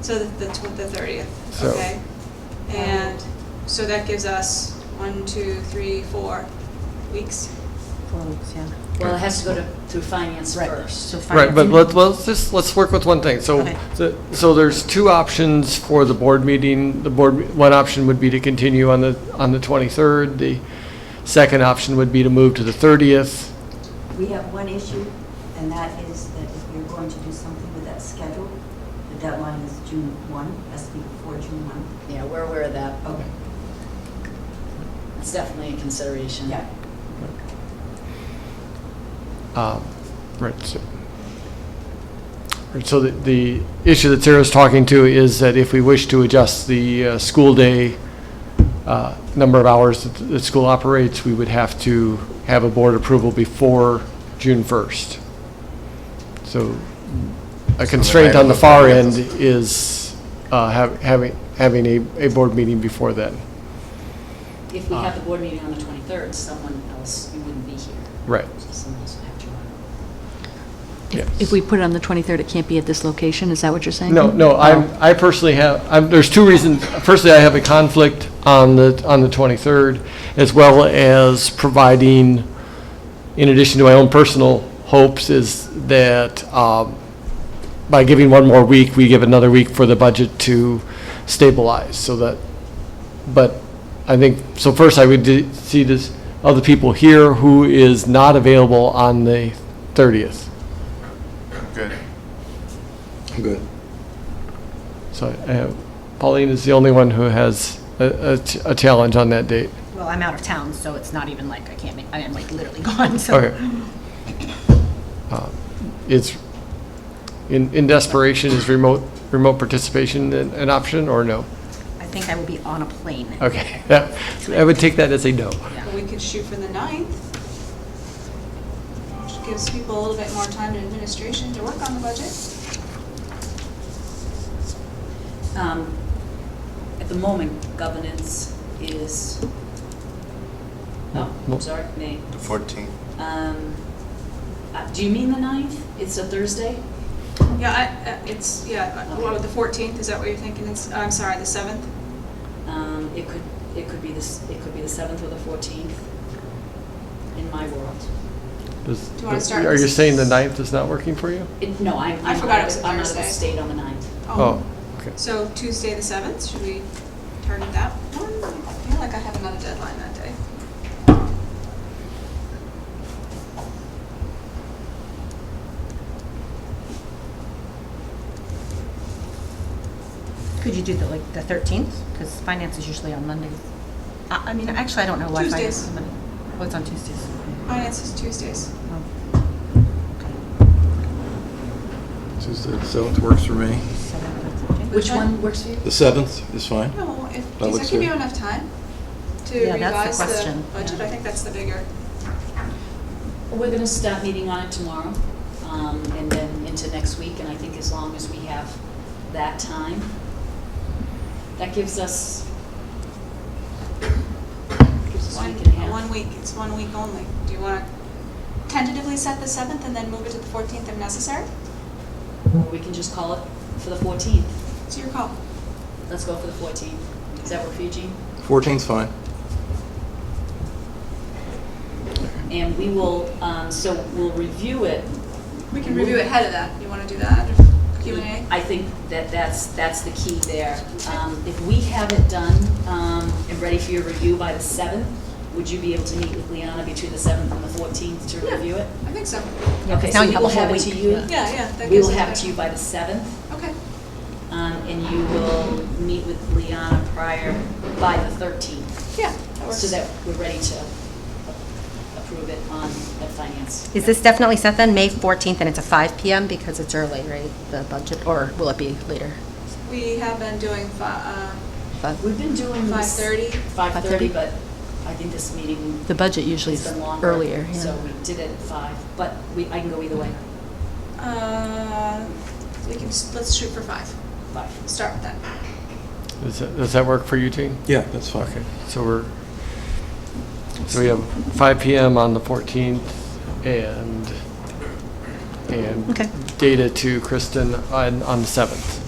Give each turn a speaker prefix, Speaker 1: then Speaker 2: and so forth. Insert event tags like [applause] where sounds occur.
Speaker 1: So the, the tw- the thirtieth,
Speaker 2: So-
Speaker 1: okay? And, so that gives us one, two, three, four weeks.
Speaker 3: Four weeks, yeah.
Speaker 4: Well, it has to go to, through finance
Speaker 3: Right.
Speaker 4: first.
Speaker 3: So
Speaker 2: Right, but let's,
Speaker 3: finance.
Speaker 2: let's just, let's work with one thing. So,
Speaker 3: Okay.
Speaker 2: the- so there's two options for the board meeting. The board, one option would be to continue on the, on the 23rd. The second option would be to move to the 30th.
Speaker 5: We have one issue, and that is that if we're going to do something with that schedule, the deadline is June 1, has to be before June 1.
Speaker 4: Yeah, we're aware of that.
Speaker 5: Okay,
Speaker 4: It's definitely a consideration.
Speaker 5: yeah.
Speaker 2: Um, Right, so, right, so the, the issue that Sarah's talking to is that if we wish to adjust the uh, school day, uh, number of hours that the school operates, we would have to have a board approval before June 1st. So a constraint on the far end is uh, hav- having, having a, a board meeting before then.
Speaker 4: If we
Speaker 3: Uh.
Speaker 4: have the board meeting on the 23rd, someone else, you wouldn't be here.
Speaker 2: Right.
Speaker 4: So Someone else would have to run.
Speaker 2: Yes.
Speaker 6: If we put it on the 23rd, it can't be at this location, is that what you're saying?
Speaker 2: No, no, I'm, I personally have, I'm, there's two reasons. Firstly, I have a conflict on the, on the 23rd, as well as providing, in addition to my own personal hopes, is that, um, by giving one more week, we give another week for the budget to stabilize, so that, but I think, so first I would d- see this, other people here who is not available on the 30th.
Speaker 7: Good.
Speaker 8: Good.
Speaker 2: So uh, Pauline is the only one who has a, a ch- a challenge on that date.
Speaker 3: Well, I'm out of town, so it's not even like I can't make, I am like literally [laughs] gone, so.
Speaker 2: Okay. Uh, Is, in in desperation, is remote, remote participation an an option or no?
Speaker 3: I think I will be on a plane.
Speaker 2: Okay, [laughs] that- I would take that as a no.
Speaker 1: But we could shoot for the ninth. Which gives people a little bit more time in administration to work on the budget.
Speaker 4: Um, At the moment, governance is, oh,
Speaker 2: Well-
Speaker 4: I'm sorry, May.
Speaker 7: The 14th.
Speaker 4: Um, uh, Do you mean the 9th? It's a Thursday?
Speaker 1: Yeah, I, uh, it's, yeah, uh, what, the fourteenth, is that what you're thinking? It's, I'm sorry, the seventh?
Speaker 4: Um, It could, it could be this, it could be the 7th or the 14th in my world.
Speaker 2: Does-
Speaker 1: Do you wanna start
Speaker 2: Are you
Speaker 1: with-
Speaker 2: saying the ninth is not working for you?
Speaker 4: It- No, I'm,
Speaker 1: I
Speaker 4: I'm
Speaker 1: forgot it
Speaker 4: out
Speaker 1: was
Speaker 4: of- I'm out of the
Speaker 1: Thursday.
Speaker 4: state on the 9th.
Speaker 1: Um,
Speaker 2: Oh, okay.
Speaker 1: So Tuesday, the seventh, should we target that one? I feel like I have another deadline that day.
Speaker 3: Could you do the, like, the 13th? Because finance is usually on Mondays. I, I mean, actually, I don't know why finance
Speaker 1: Tuesdays.
Speaker 3: is on Monday. Oh, it's on Tuesdays.
Speaker 1: Finance is Tuesdays.
Speaker 3: Oh.
Speaker 8: Tuesday, the 7th works for me.
Speaker 3: So that's okay.
Speaker 4: Which one works for you?
Speaker 8: The 7th is fine.
Speaker 1: No, if,
Speaker 8: That
Speaker 1: does that
Speaker 8: looks
Speaker 1: give
Speaker 8: good.
Speaker 1: you enough time to
Speaker 3: Yeah,
Speaker 1: revise
Speaker 3: that's the
Speaker 1: the
Speaker 3: question.
Speaker 1: budget?
Speaker 3: Yeah.
Speaker 1: I think that's the bigger.
Speaker 4: We're going to start meeting on it tomorrow, um, and then into next week, and I think as long as we have that time, that gives us, gives us a
Speaker 1: One,
Speaker 4: week and a half.
Speaker 1: one week, it's one week only. Do you want to tentatively set the 7th and then move it to the 14th if necessary?
Speaker 4: Or we can just call it for the 14th.
Speaker 1: It's your call.
Speaker 4: Let's go for the 14th. Does that work for you, Jean?
Speaker 8: 14th's fine.
Speaker 4: And we will, um, so we'll review it.
Speaker 1: We can
Speaker 4: Mhm.
Speaker 1: review ahead of that. You want to do that, Q and A?
Speaker 4: I think that that's, that's the key there. Um, If we have it done um, and ready for your review by the 7th, would you be able to meet with Liana between the 7th and the 14th to
Speaker 1: Yeah.
Speaker 4: review it?
Speaker 1: I think so.
Speaker 3: Yeah, 'cause
Speaker 4: Okay,
Speaker 3: now
Speaker 4: so
Speaker 3: you
Speaker 4: we
Speaker 3: have
Speaker 4: will
Speaker 3: a whole
Speaker 4: have it
Speaker 3: week.
Speaker 4: to you.
Speaker 1: Yeah, yeah. that
Speaker 4: We
Speaker 1: gives
Speaker 4: will
Speaker 1: us
Speaker 4: have it
Speaker 1: enough-
Speaker 4: to you by the 7th,
Speaker 1: Okay,
Speaker 4: um, and you will meet with Liana prior, by the 13th,
Speaker 1: yeah, that works.
Speaker 4: so that we're ready to a- approve it on the finance.
Speaker 3: Is this definitely set then, May 14th, and it's a 5 PM because it's early, right? The budget, or will it be later?
Speaker 1: We have been doing fi- uh,
Speaker 3: But
Speaker 4: We've been doing this.
Speaker 1: 5:30?
Speaker 4: 5:30, but I think this meeting
Speaker 6: The budget usually
Speaker 4: has
Speaker 6: is
Speaker 4: been longer.
Speaker 6: earlier, yeah.
Speaker 4: So we did it at 5, but we, I can go either way,
Speaker 1: uh, uh, we can, s- let's shoot for five.
Speaker 4: 5.
Speaker 1: Start with that.
Speaker 2: Does that, does that work for you, Jean?
Speaker 8: Yeah, that's fine.
Speaker 2: Okay, so we're, so we have 5 PM on the 14th and, and
Speaker 3: Okay.
Speaker 2: data to Kristen on, on the 7th.